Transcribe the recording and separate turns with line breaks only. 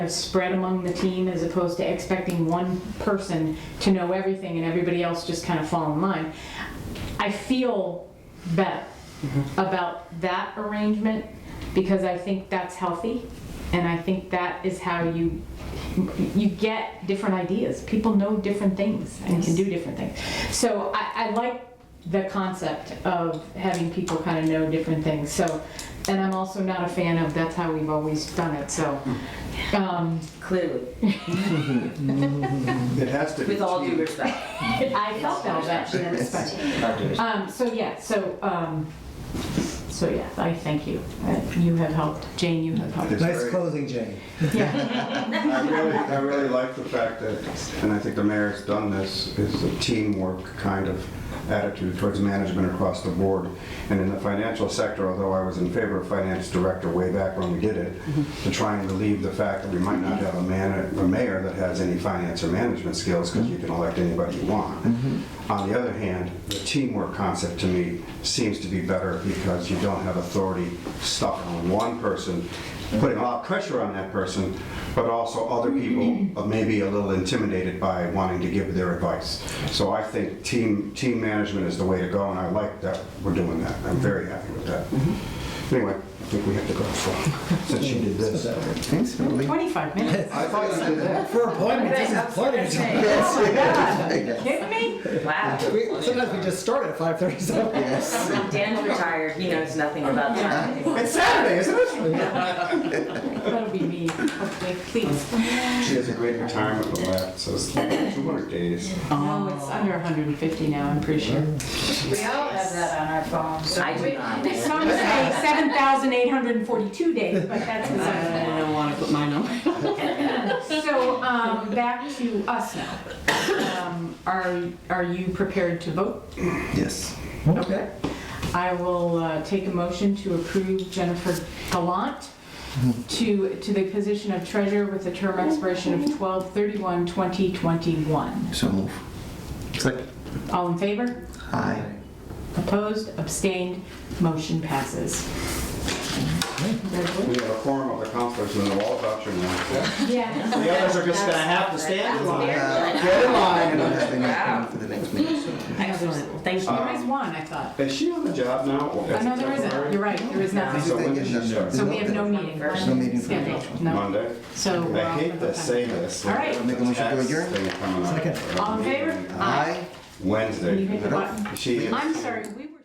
spread among the team as opposed to expecting one person to know everything and everybody else just kind of fall in line. I feel better about that arrangement because I think that's healthy and I think that is how you you get different ideas. People know different things and can do different things. So I, I like the concept of having people kind of know different things. So and I'm also not a fan of that's how we've always done it. So um,
Clearly,
It has to be.
with all due respect.
I felt that was actually a respect. Um, so yeah, so, um, so yeah, I thank you. Uh, You have helped, Jane, you have helped.
It's
Nice
very-
closing, Jane.
Yeah,
I really, I really like the fact that, and I think the mayor's done this, is a teamwork kind of attitude towards management across the board. And in the financial sector, although I was in favor of finance director way back when we did it,
Mm-hmm.
to try and relieve the fact that we might not have a man, a mayor that has any finance or management skills, because you can elect anybody you want.
Mm-hmm.
On the other hand, the teamwork concept to me seems to be better because you don't have authority stuck on one person, putting a lot of pressure on that person, but also other people are maybe a little intimidated by wanting to give their advice. So I think team, team management is the way to go, and I like that we're doing that. I'm very happy with that. Anyway, I think we have to go, so, since you did this.
Thanks, Melody.
25 minutes.
I thought you did that.
For appointment, this is plenty of time.
Kidding me?
Wow.
We- Sometimes we just start at 5:37.
Yes.
Dan's retired, he knows nothing about that.
It's Saturday, isn't it?
That'll be me, hopefully, please.
She has a great retirement with that, so it's like 200 days.
No, it's under 150 now, I'm pretty sure.
We all have that on our phones.
I do not.
Some say 7,842 days, but that's
I
besides
don't want to put mine on.
the So, um, back to us now. Um, Are, are you prepared to vote?
Yes.
Okay.
I will uh, take a motion to approve Jennifer Gallant to, to the position of treasurer with a term expiration of 12/31/2021.
So move. Second.
All in favor?
Aye.
Opposed? Abstained? Motion passes.
We have a quorum of the counselors and the wall voucher now.
Yeah.
The others are just gonna have to stand in line. Get
I
in
don't
line.
have anything for the next meeting, so.
Excellent, thank you.
There is one, I thought.
Is she on the job now? or is
Oh,
it
no, there isn't.
temporary?
You're right, there is nothing.
So when does she start?
So we have no meeting.
There's no meeting for the
Scheduled.
next one.
No.
Monday?
So. we're
I
off
hate
with the
to
time.
say this.
All right.
Make a motion to
Tax
adjourn?
thing coming up.
Second.
All in favor?
Aye.
You hit
Wednesday.
the button.
She is.
I'm sorry, we